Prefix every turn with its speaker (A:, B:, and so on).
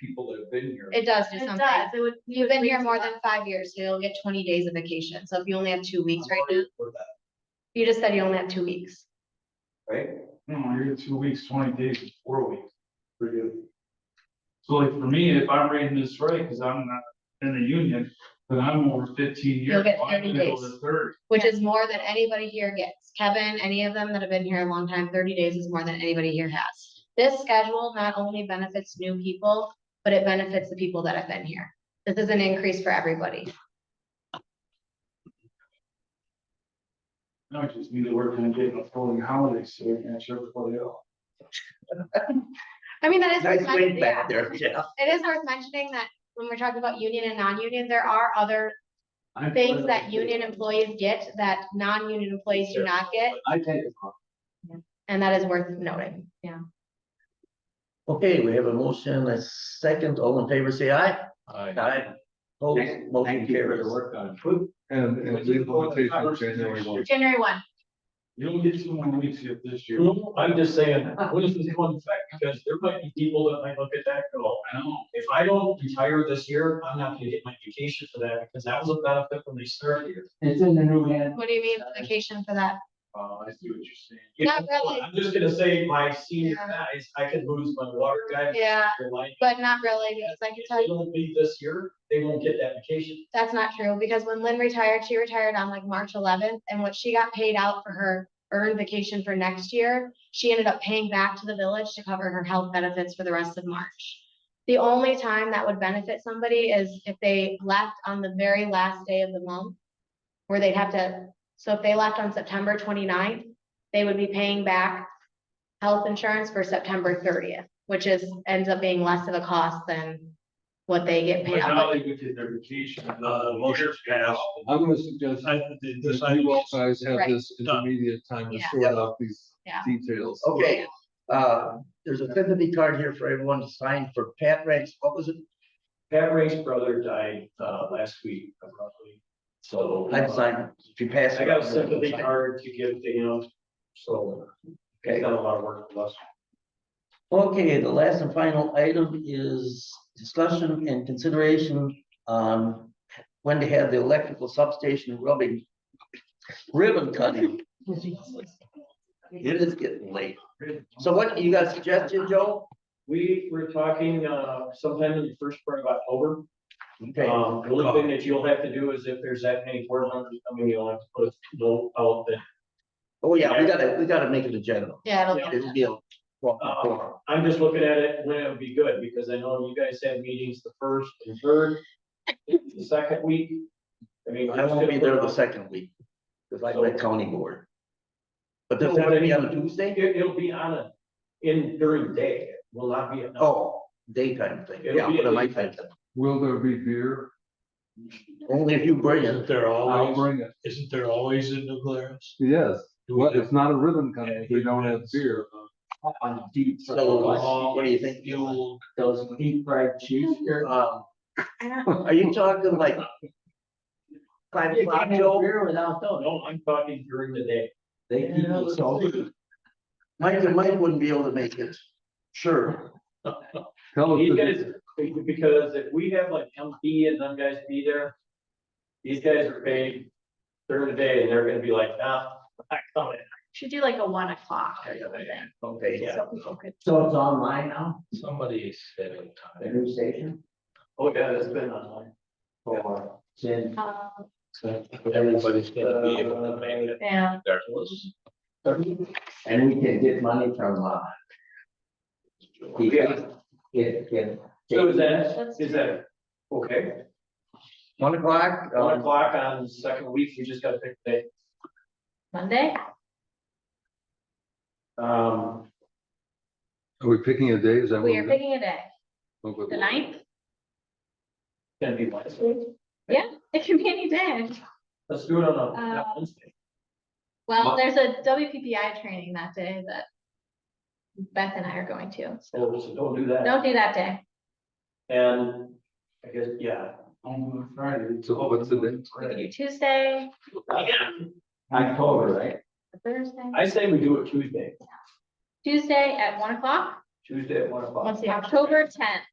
A: people that have been here.
B: It does do
C: It
B: something.
C: does, it would.
B: You've been here more
C: than.
B: than five years, so you'll get twenty days of vacation. So if you only have two weeks right now,
A: For that,
B: you just said you only have two weeks.
A: Right?
D: No, you're at two weeks, twenty days, and four weeks. For you. So like for me, if I'm reading this right, because I'm not in the union, then I'm over fifteen years.
B: You'll get
D: I'm
B: 30
D: gonna go
B: days.
D: to Thirty.
B: which is more than anybody here gets. Kevin, any of them that have been here a long time, thirty days is more than anybody here has. This schedule not only benefits new people, but it benefits the people that have been here. This is an increase for everybody.
D: No, I just need to work and get a full holiday, so we can catch everybody else.
B: I mean, that is. worth
E: Nice wing
B: mentioning.
E: back there, Jeff.
B: It is worth mentioning that when we're talking about union and non-union, there are other
F: I'm
B: things
F: glad
B: that
F: you did.
B: union employees get that non-union employees do not get,
F: I take it off.
B: and that is worth noting. Yeah.
E: Okay, we have a motion, a second, all in favor, say aye. Aye. Opposed, motion
F: Thank you for
E: carries.
F: the work on
G: And, and
D: Which
G: the
D: is all the
G: implementation of
D: covers and
G: January
D: everything.
G: one.
B: January one,
D: You don't get two more weeks yet this year.
F: it. I'm just saying, what if this one fact, because there might be people that might look at that and go,
D: I know.
F: if I don't retire this year, I'm not gonna get my vacation for that, because that was a benefit when they started here.
H: It's in the new hand.
B: what do you mean vacation for that?
D: Uh, I see what you're saying.
F: You
B: Not
F: know,
B: really.
F: I'm just gonna say, my senior
B: Yeah.
F: guys, I could lose my water guy.
B: Yeah.
F: my light.
B: But not really, because I can
F: If
B: tell
F: they
B: you,
F: don't leave this year, they won't get that vacation.
B: that's not true, because when Lynn retired, she retired on like March eleventh, and what she got paid out for her earned vacation for next year, she ended up paying back to the village to cover her health benefits for the rest of March. The only time that would benefit somebody is if they left on the very last day of the month, where they'd have to, so if they left on September 29th, they would be paying back health insurance for September thirtieth, which is, ends up being less of a cost than what they get
D: But
B: paid out.
D: now they would get their vacation.
I: Uh, motion passed.
G: I'm gonna suggest
I: I, the,
G: that
I: the,
G: you all guys have
B: Right.
G: this intermediate time to
B: Yeah.
G: sort out these
B: Yeah.
G: details.
E: Okay, uh, there's a sympathy card here for everyone to sign for Pat Ranks, what was it?
F: Pat Ray's brother died, uh, last week abruptly, so. uh,
E: I'd sign it, if you pass. it
F: I got a
E: on,
F: sympathy
E: sign it.
F: card to give to him, so he's
E: Okay.
F: done a lot of work for us.
E: Okay, the last and final item is discussion and consideration on when to have the electrical substation rubbing ribbon cutting. It is getting late. So what, you got a suggestion, Joe?
F: We were talking, uh, sometime in the first part of October.
E: Okay,
F: Um, the only thing that you'll have to do is if there's that many board members coming, you'll have to put a note out that
E: oh yeah, we gotta, we gotta make it a general.
B: Yeah, it'll get
E: It'll be a. walk the floor.
F: I'm just looking at it when it would be good, because I know you guys have meetings the first and third, the second week. I mean.
E: I won't be there the second week, because I went county board. But does that be on a Tuesday?
F: It, will be on a, in during the day, It will not be at night.
E: Oh, daytime thing, yeah, but a nighttime thing,
G: Will there be beer?
E: only if you bring it.
I: isn't
F: Uh,
I: there
G: I'll
I: always,
G: bring it.
I: isn't there always in the glass?
G: Yes,
I: Do
G: but
I: we-
G: it's not a ribbon cutting, if we don't have beer.
H: On deep. fried-
C: uh,
E: So, what do you think?
I: You'll,
H: Those deep fried cheese. here.
E: Um,
B: I don't
E: are you talking like? Five
H: You
E: o'clock,
H: can't have
E: Joe?
H: beer without those.
F: No, I'm talking during the day.
H: They keep it so.
E: Mike, Mike wouldn't be able to make it. Sure.
G: Tell us,
F: These
G: if-
F: guys, because if we have like MP and them guys be there, these guys are paid during the day, and they're gonna be like, nah, I'm not coming.
C: Should do like a one o'clock or something,
E: Okay,
F: Yeah.
C: so people could.
H: So it's online now,
I: somebody's spending time.
H: the new station,
F: Oh, yeah, that's been online.
H: or since
C: um,
I: Everybody's gonna be able
F: Uh,
I: to make it.
C: Yeah,
I: There it was.
H: and we can get money from, uh.
F: Yeah.
H: Get, get.
F: So is that, is that, okay,
E: one o'clock,
F: one
E: um,
F: o'clock on the second week, we just gotta pick the day.
C: Monday?
F: Um,
G: are we picking a day? Is that? what
C: We are
G: we're-
C: picking a day,
G: Okay.
C: the ninth,
F: gonna be Wednesday,
C: it can be any day.
F: let's do it on a, not
C: Uh,
F: Wednesday,
C: Well, there's a WPPI training that day that Beth and I are going to, so
F: so so don't do that,
C: don't do that day.
F: and I guess, yeah.
D: On Friday.
G: So what's the date?
C: We could do Tuesday,
F: October, right?
C: Thursday,
F: I say we do it Tuesday,
C: Tuesday at one o'clock,
F: Tuesday at one o'clock.
C: October tenth.